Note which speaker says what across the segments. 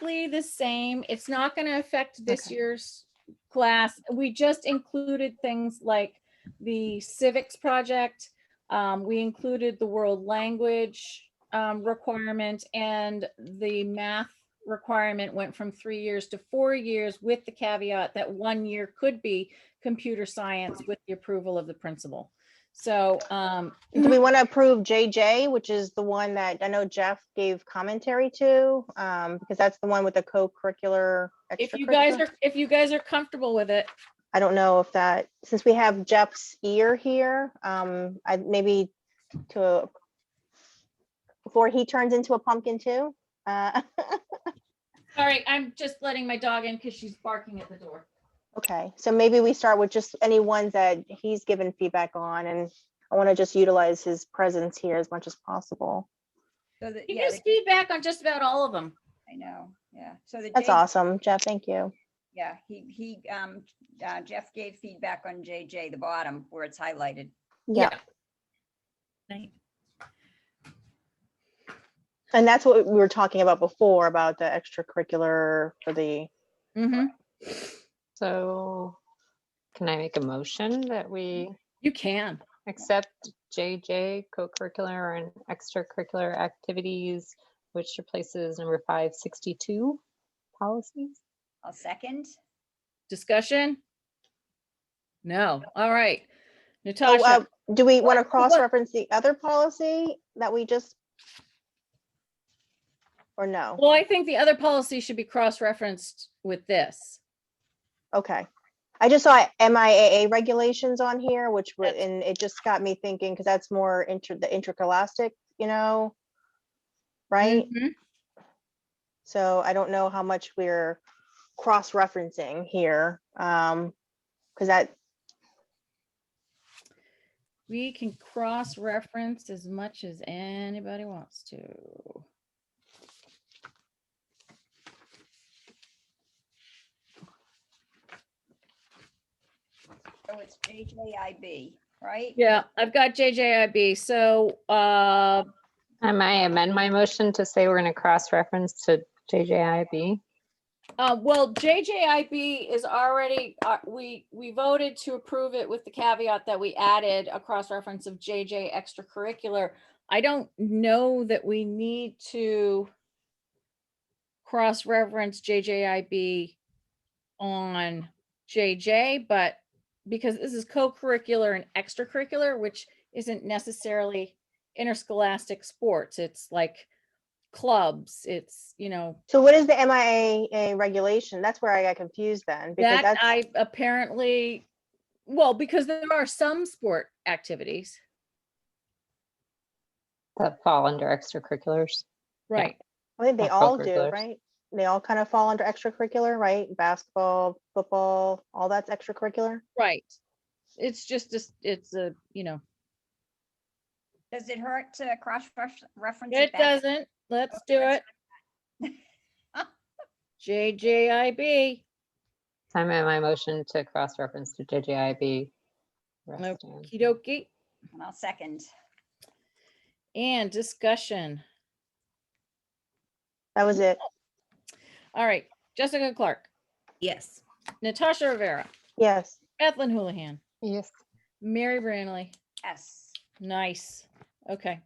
Speaker 1: basically the same. It's not going to affect this
Speaker 2: Okay.
Speaker 1: year's class. We just included things like the civics project. Um, we included the world language um, requirement and the math requirement went from three years to four years with the caveat that one year could be computer science with the approval of the principal. So, um,
Speaker 2: Do
Speaker 3: Mm-hmm.
Speaker 2: we want to approve JJ, which is the one that I know Jeff gave commentary to? um, Because that's the one with the co-curricular.
Speaker 1: if you guys
Speaker 2: extracurricular?
Speaker 1: are, if you guys are comfortable with it,
Speaker 2: I don't know if that, since we have Jeff's ear here, um, I maybe to before he turns into a pumpkin too. Uh,
Speaker 1: Sorry, I'm just letting my dog in because she's barking at the door.
Speaker 2: Okay, so maybe we start with just any ones that he's given feedback on and I want to just utilize his presence here as much as possible.
Speaker 4: So that,
Speaker 1: He
Speaker 4: yeah,
Speaker 1: gives
Speaker 4: the-
Speaker 1: feedback on just about all of them.
Speaker 4: I know, yeah. So the.
Speaker 2: That's
Speaker 4: J-
Speaker 2: awesome, Jeff, thank you.
Speaker 4: Yeah, he, he, um, uh, Jeff gave feedback on JJ, the bottom where it's highlighted.
Speaker 2: Yeah,
Speaker 1: Right.
Speaker 2: and that's what we were talking about before, about the extracurricular for the,
Speaker 1: Mhm.
Speaker 3: So can I make a motion that we
Speaker 2: Mm-hmm.
Speaker 1: You can.
Speaker 3: accept JJ co-curricular and extracurricular activities, which replaces number five sixty-two policies?
Speaker 4: I'll second.
Speaker 1: Discussion? No. All right.
Speaker 2: Oh, uh,
Speaker 1: Natasha,
Speaker 2: do we want to
Speaker 1: What- what-
Speaker 2: cross-reference the other policy that we just? Or no?
Speaker 1: well, I think the other policy should be cross-referenced with this.
Speaker 2: Okay. I just saw MIAA regulations on here, which were,
Speaker 1: That's-
Speaker 2: and it just got me thinking, because that's more inter, the intergalactic, you know? Right?
Speaker 1: Mhm. Mm-hmm.
Speaker 2: So I don't know how much we're cross-referencing here. Um, because that,
Speaker 1: We can cross-reference as much as anybody wants to.
Speaker 4: So it's JJIB, right?
Speaker 1: Yeah, I've got JJIB. So, uh,
Speaker 3: I might amend my motion to say we're gonna cross-reference to JJIB.
Speaker 1: Uh, well, JJIB is already, uh, we, we voted to approve it with the caveat that we added a cross-reference of JJ extracurricular. I don't know that we need to cross-reference JJIB on JJ, but because this is co-curricular and extracurricular, which isn't necessarily interscholastic sports, it's like clubs, it's, you know,
Speaker 2: so what is the MIAA regulation? That's where I got confused then, because
Speaker 1: That
Speaker 2: that's,
Speaker 1: I apparently, well, because there are some sport activities,
Speaker 3: That fall under extracurriculars.
Speaker 1: right?
Speaker 2: I think they
Speaker 3: Not
Speaker 2: all do,
Speaker 3: co-curriculars.
Speaker 2: right? They all kind of fall under extracurricular, right? Basketball, football, all that's extracurricular?
Speaker 1: Right. It's just, a- it's a, you know,
Speaker 4: Does it hurt to cross-reference?
Speaker 1: it
Speaker 4: back?
Speaker 1: doesn't, let's do it. JJIB,
Speaker 3: I amend my motion to cross-reference to JJIB. rest
Speaker 1: Nope.
Speaker 3: and-
Speaker 1: kidoki,
Speaker 4: And I'll second.
Speaker 1: and discussion.
Speaker 2: That was
Speaker 1: Mm-hmm.
Speaker 2: it.
Speaker 1: All right, Jessica Clark,
Speaker 4: Yes.
Speaker 1: Natasha Rivera,
Speaker 2: Yes.
Speaker 1: Ethlyn Houlihan,
Speaker 3: Yes,
Speaker 1: Mary Branley.
Speaker 4: Yes.
Speaker 1: Nice, okay.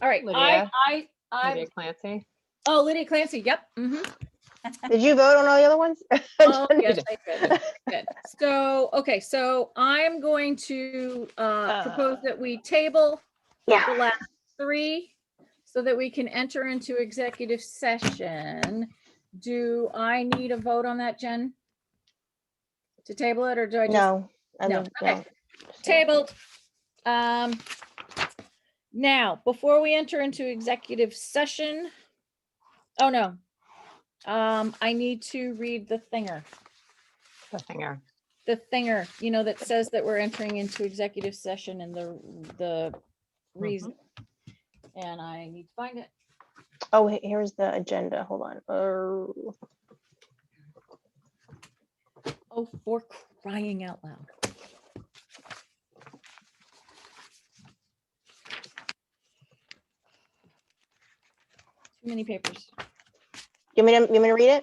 Speaker 1: All right, I,
Speaker 3: Lydia.
Speaker 1: I, I,
Speaker 3: Lydia Clancy.
Speaker 1: oh, Lydia Clancy, yep, mhm.
Speaker 2: Did you vote on all the other ones?
Speaker 1: Oh, yes, I did. Good. So, okay, so I'm going to uh, propose that we table the last three so that we can enter into executive session. Do I need a vote on that, Jen? To table it, or do I just?
Speaker 2: No. I
Speaker 1: No,
Speaker 2: don't-
Speaker 1: okay. Tabled. Um, now, before we enter into executive session, oh no. Um, I need to read the thinger.
Speaker 3: the thinger.
Speaker 1: the thinger, you know, that says that we're entering into executive session and the, the reason. And I need to find it.
Speaker 2: Oh, he- here's the agenda. Hold on. Oh,
Speaker 1: Oh, for crying out loud. Too many papers.
Speaker 2: you want me to, you want me to read it?